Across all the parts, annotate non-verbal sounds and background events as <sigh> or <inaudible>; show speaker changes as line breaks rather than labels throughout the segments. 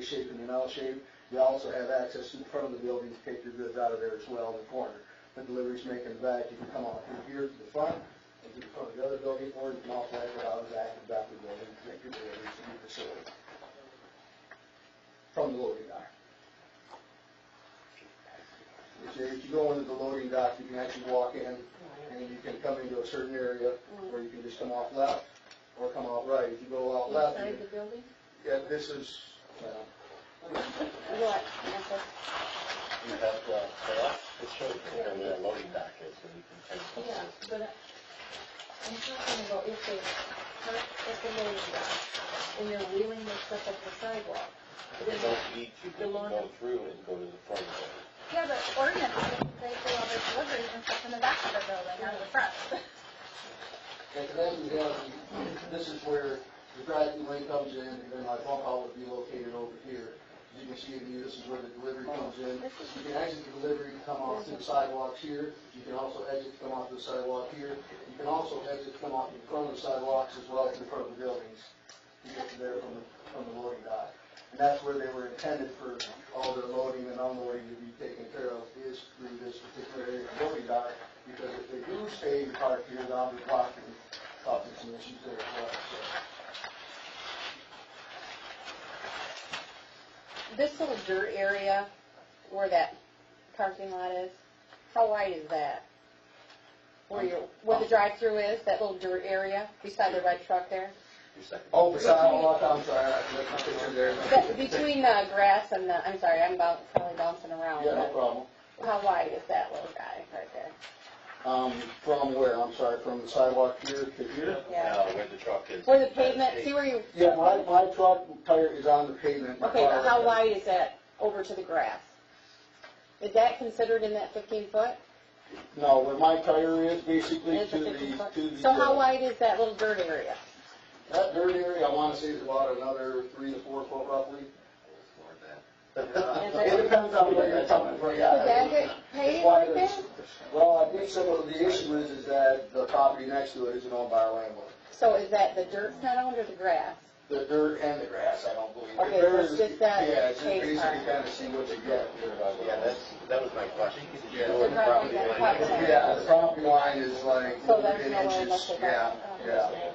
shape and an L shape. You also have access in front of the building to take your goods out of there as well in the corner. The deliveries making the back, you can come out through here to the front, and to the front of the other building, or you can also exit out of the back and back of the building to make your deliveries to the facility. From the loading dock. If you- if you go into the loading dock, you can actually walk in, and you can come into a certain area, where you can just come off left, or come out right. If you go out left, you
Inside the building?
yeah, this is, uh, well,
What? Okay.
You have, uh, for us, it shows where the loading dock is, so you can take.
Yeah, but I- I'm talking about if they park at the loading dock and they're wheeling their stuff up the sidewalk.
But you don't need to, you can go through and go to the front of it.
Yeah, but ordinance, they do all their deliveries and stuff in the back of the building, not in the front.
and then you have, this is where the gravity lane comes in, and then my bump out would be located over here. As you can see, in here, this is where the delivery comes in. You can exit the delivery and come off to the sidewalks here. You can also exit to come off to the sidewalk here. You can also exit to come off in front of the sidewalks as well as in front of the buildings. You get to there from, the- from the loading dock. And that's where they were intended for all their loading and unloading to be taken care of is through this particular area of loading dock. Because if they do stay in park here, they'll be blocking, causing some issues there as well, so.
This little dirt area where that parking lot is, how wide is that? Where your, where the drive-through is, that little dirt area beside the red truck there?
Your second.
Oh, the sidewalk, I'm sorry, I left my picture there.
That- Between the grass and the, I'm sorry, I'm about, probably bouncing around.
Yeah, no problem.
but How wide is that little guy right there?
Um, from where, I'm sorry, from the sidewalk here to here?
Now, where the truck is.
Where the
<laughs>
pavement, see where you,
Yeah, my, my truck tire is on the pavement. My
okay, but
car-
how wide is that over to the grass? Is that considered in that fifteen foot?
No, where my tire is basically
Is
to
it
the,
15 foot?
to the.
So how
uh,
wide is that little dirt area?
That dirt area, I wanna say is about another three to four foot roughly.
there-
It depends on where you're coming from, yeah.
Would that get
It's
paved
wide
like that?
as- Well, I think some of the issue is, is that the property next to it isn't owned by a landlord.
So is that the dirt's not owned or the grass?
The dirt and the grass, I don't believe. The
Okay,
dirt
let's
is-
get that
Yeah, it's just
paved
basically
part.
kinda see what you get.
Yeah, that's, that was my question.
Yeah.
Where the property line is.
Yeah, the property line is like
So there's
in
no way
inches,
left of
yeah,
that? Oh.
yeah.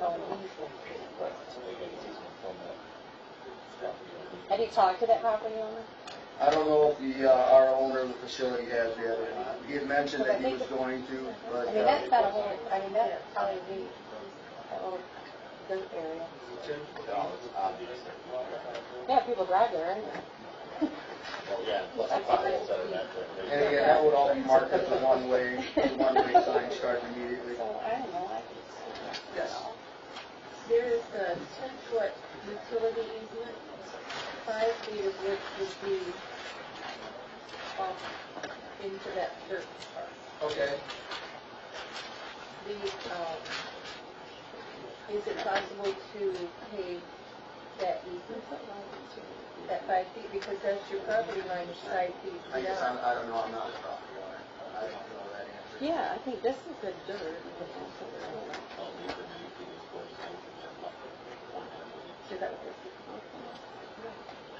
Right, so they get an easement from that.
Have you talked to that property owner?
I don't know if the, uh, our owner of the facility has the other, he had mentioned that he was going to,
I
but. uh,
mean, that's not a whole, I mean, that's probably be that little dirt area.
No, it's obvious.
Yeah, people drive there, right?
Yeah, plus the potholes that are that there.
And again, that would all be marked as a
<laughs>
one-way, one-way sign starting immediately.
So, I don't know, I
Yes.
There is a ten-foot utility easement, five feet of which would be off into that dirt part.
Okay.
The, um, is it possible to pave that easement, that five feet, because that's your property line, is five
I
feet
guess
down?
I'm, I don't know, I'm not a property owner. I don't know that answer.
Yeah, I think this is the dirt.
Is that what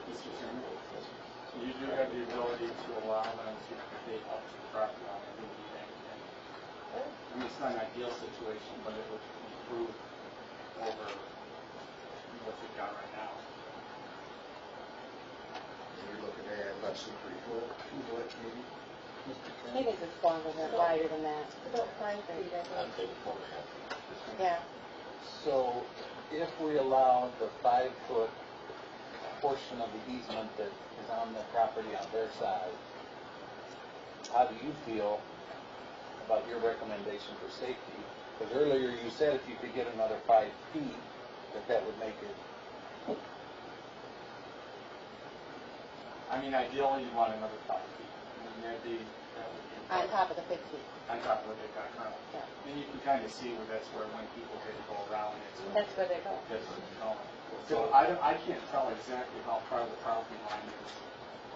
this is?
You do have the ability to allow them to create up to the property line, I think, you think, and, I mean, it's not an ideal situation, but it would improve over what we've got right now.
You're looking at less than three foot, two foot maybe.
I think it's just longer than, wider than that,
It's About five feet, I think.
I'm taking four and a half.
yeah.
So if we allow the five-foot portion of the easement that is on the property on their side, how do you feel about your recommendation for safety? Because earlier you said if you could get another five feet, that that would make it,
I mean, ideally, you want another five feet, I mean, that'd be, that would
On
be.
top of the fifteen,
On top of what they've got currently.
Yeah.
And you can kind of see where that's where when people did go around, it's.
that's where they go.
That's what it's called. So I don't, I can't tell exactly how far the property line is.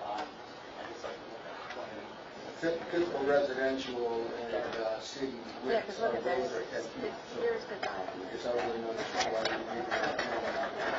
Um, I guess I can look at the plan.
Typical residential and, uh, city
Yeah,
widths
because
are
look at
those are
this,
ten
it's
feet, so.
here's the diamond.
I guess I wouldn't understand why you would do that.